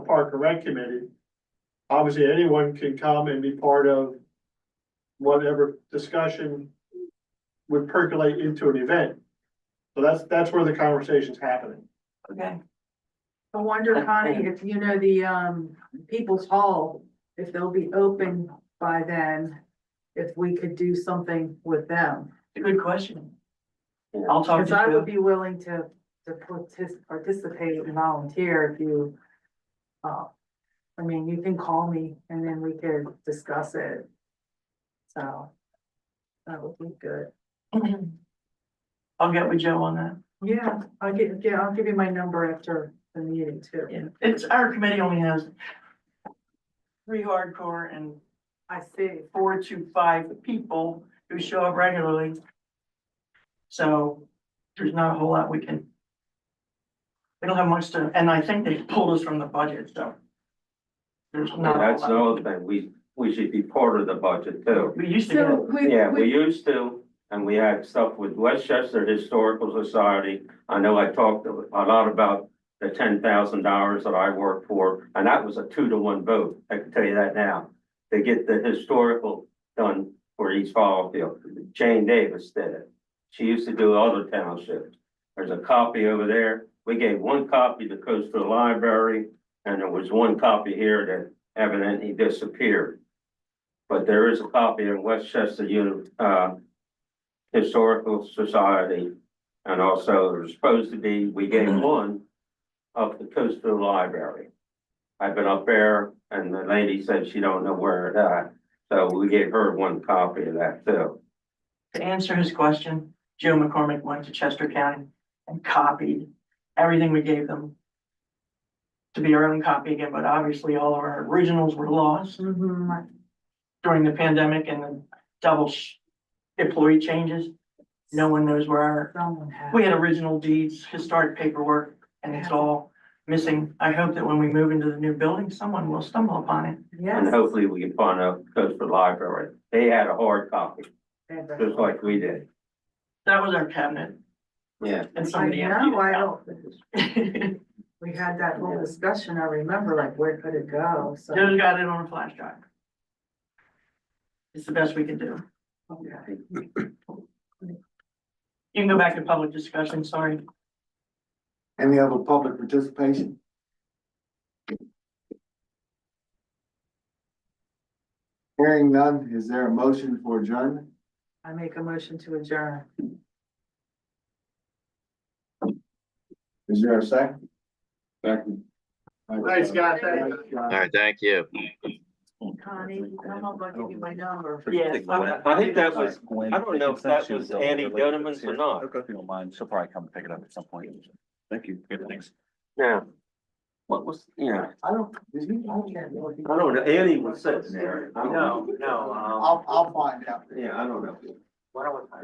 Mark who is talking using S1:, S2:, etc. S1: Park and Rec Committee, obviously anyone can come and be part of whatever discussion would percolate into an event. So that's, that's where the conversation's happening.
S2: Okay.
S3: I wonder,
S2: That's
S3: Connie,
S2: good.
S3: if you know the, um, People's Hall, if they'll be open by then, if we could do something with them.
S2: Good question. I'll talk
S3: Cause I would
S2: to
S3: be willing to, to partic- participate and volunteer if you, uh, I mean, you can call me and then we could discuss it. So, that would be good.
S2: Joe. I'll get with Joe on that.
S3: Yeah, I'll get, yeah, I'll give you my number after the meeting too.
S2: It's, our committee only has three hardcore and
S3: I see.
S2: four to five people who show up regularly. So there's not a whole lot we can. We don't have much to, and I think they pulled us from the budget, so. There's not. a whole
S4: That's
S2: lot.
S4: another thing, we, we should be part of the budget too.
S2: We used to get,
S3: So
S2: it.
S3: we,
S4: Yeah, we
S3: we,
S4: used to, and we had stuff with Westchester Historical Society. I know I talked a lot about the ten thousand dollars that I worked for, and that was a two to one vote, I can tell you that now. To get the historical done for East Fallfield, Jane Davis did it. She used to do other townships. There's a copy over there, we gave one copy to Coastal Library, and there was one copy here that evidently disappeared. But there is a copy in Westchester Uni, uh, Historical Society. And also there's supposed to be, we gave one up the coastal library. I've been up there and the lady said she don't know where it at, so we gave her one copy of that too.
S2: to answer his question, Joe McCormick went to Chester County and copied everything we gave them. To be our own copy again, but obviously all of our originals were lost.
S3: Mhm.
S2: during the pandemic and the double sh- employee changes. No one knows where our,
S3: someone had.
S2: we had original deeds, historic paperwork, and it's all missing. I hope that when we move into the new building, someone will stumble upon it.
S3: Yes.
S4: And hopefully we can find a coastal library. They had a hard copy,
S3: uh,
S4: just like we did.
S2: That was our cabinet
S4: Yeah.
S2: and
S3: I
S2: somebody emptied
S3: know, I don't,
S2: it out.
S3: we had that whole discussion, I remember, like, where could it go, so.
S2: Joe's got it on a flash drive. It's the best we can do.
S3: okay.
S2: You can go back to public discussion, sorry.
S5: Any other public participation? Hearing none, is there a motion for adjournment?
S3: I make a motion to adjourn.
S5: Is there a second? Second.
S1: Thanks, Scott. Thank you.
S6: All right, thank you.
S3: Connie, come up, I'll give you my number.
S2: Yes.
S4: I think that was, I don't know if that was Annie Donovan
S7: Donovan
S4: or not.
S7: If you don't mind, she'll probably come pick it up at some point. Thank you. Good, thanks.
S4: Yeah. What was, yeah,
S5: I don't, is he, I can't know. if he-
S4: I don't know, Annie
S1: um,
S4: was sitting there. I don't-
S5: I'll, I'll find out.
S4: Yeah, I don't know.